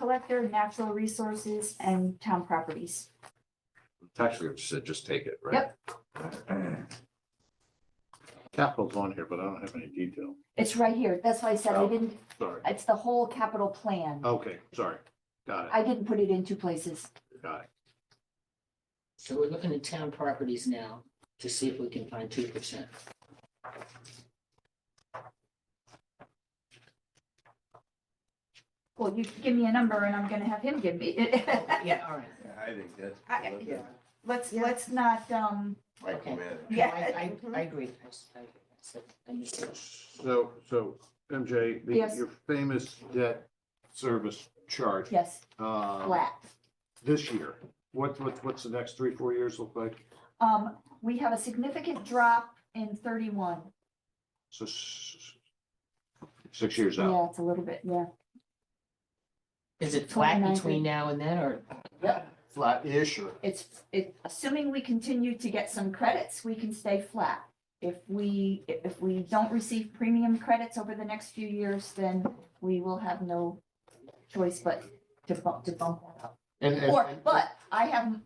collector, natural resources, and town properties. Tax collector said, just take it, right? Yep. Yep. Capital's on here, but I don't have any detail. It's right here. That's why I said I Oh. didn't, Sorry. it's the whole capital plan. Okay, sorry. Got I didn't put it in two places. it, got it. So we're looking at town properties now to see if we can find two percent. Well, you give me a number and I'm gonna have him give me. Yeah, all right. I think that's. I- I- yeah. Let's, let's not, um, Recommend. Yeah. I, I, I agree. I s- I- I s- I missed it. So, so MJ, the- Yes. your famous debt service chart, yes, uh, flat. this year, what, what, what's the next three, four years look like? Um, we have a significant drop in thirty-one. So s- six years out. Yeah, it's a little bit, yeah. Is it flat 29. between now and then, or? Flat-ish or? It's, it, assuming we continue to get some credits, we can stay flat. If we, if we don't receive premium credits over the next few years, then we will have no choice but to bump, to bump that up. And, and- Or, and- but I have,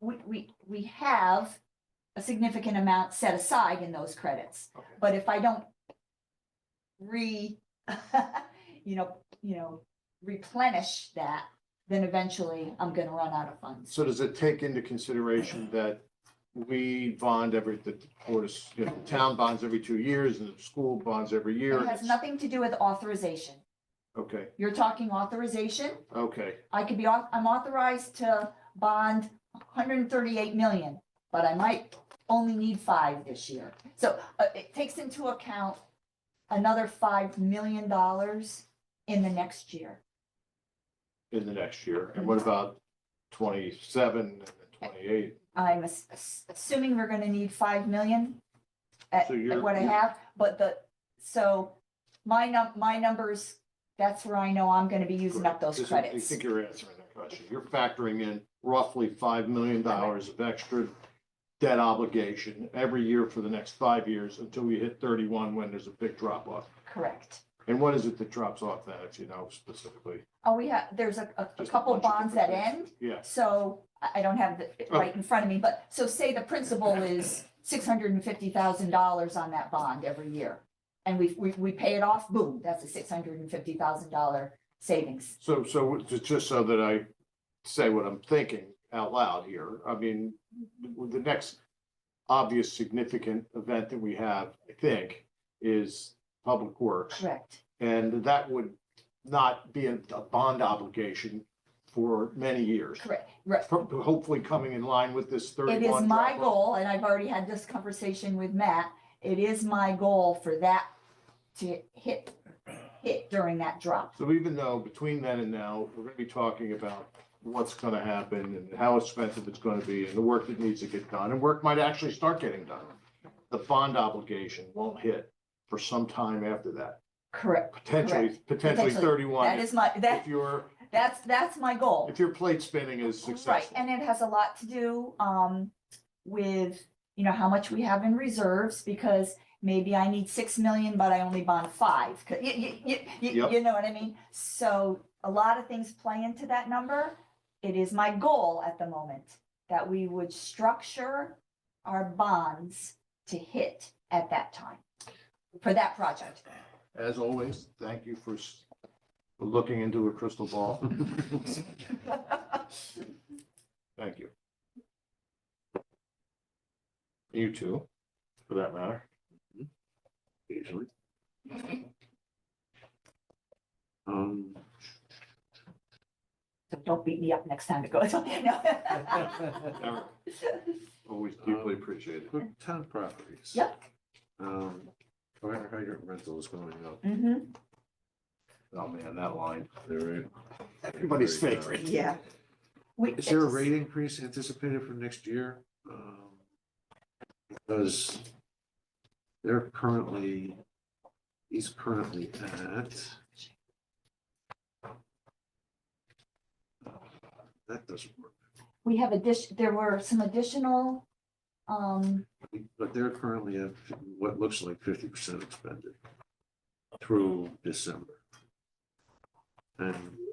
we, we, we have a significant amount set aside in those credits. Okay. But if I don't re, you know, you know, replenish that, then eventually I'm gonna run out of funds. So does it take into consideration that we bond every, that the board is, you know, the town bonds every two years and the school bonds every year? It has nothing to do with authorization. Okay, You're talking authorization. okay. I could be, au- I'm authorized to bond hundred and thirty-eight million, but I might only need five this year. So uh, it takes into account another five million dollars in the next year. in the next year, and what about twenty-seven and twenty-eight? I'm ass- ass- assuming we're gonna need five million at So at you're- Uh, what I you're- have, but the, so my num, my numbers, that's where I know I'm gonna be using up those This is- I credits. think you're answering that question. You're factoring in roughly five million dollars of extra debt obligation every year for the next five years until we hit thirty-one, when there's a big drop off. Correct. And what is it that drops off that, if you know specifically? Oh, we have, there's a, a- a Just a couple bunch of bonds that different Oh. end, Yeah, so I, I don't have it right in front of me, but, so say the principal is six hundred and fifty thousand dollars on that bond every year. And we, we, we pay it off, boom, that's a six hundred and fifty thousand dollar savings. so, so it's just so that I say what I'm thinking out loud here, I mean, with the next obvious significant event that we have, I think, is Public Works. Correct. And that would not be a a bond obligation for many years. Correct, right. Pro- Hopefully coming in line with this It thirty-one. is my drop-off. goal, and I've already had this conversation with Matt, it is my goal for that to hit, hit during that drop. So even though between then and now, we're gonna be talking about what's gonna happen and how expensive it's gonna be and the work that needs to get done, and work might actually start getting done. The bond obligation won't hit for some time after that, Correct. potentially, potentially Potentially. That thirty-one. is my, that, If your, that's, that's my goal. if your plate spinning is Right, successful. and it has a lot to do, um, with, you know, how much we have in reserves, because maybe I need six million, but I only bond five, 'cause you, you, you, you, Yep. you know what I mean? So a lot of things play into that number. It is my goal at the moment that we would structure our bonds to hit at that time for that project. As always, thank you for s- for looking into a crystal ball. Thank you. You too, for that matter. Usually. Um, So don't beat me up next time it goes on. No. Always deeply appreciated. quick town properties. Yep. Um, fire hydrant rental is going up. Mhm. Oh, man, that line. There is- Everybody's there is, uh, favorite. Yeah. We- Is there a it's- rate increase anticipated for next year? Um, Because they're currently, he's currently at. uh, That doesn't work, We have addition, there were some additional, um, but they're currently at what looks like fifty percent expended through December. And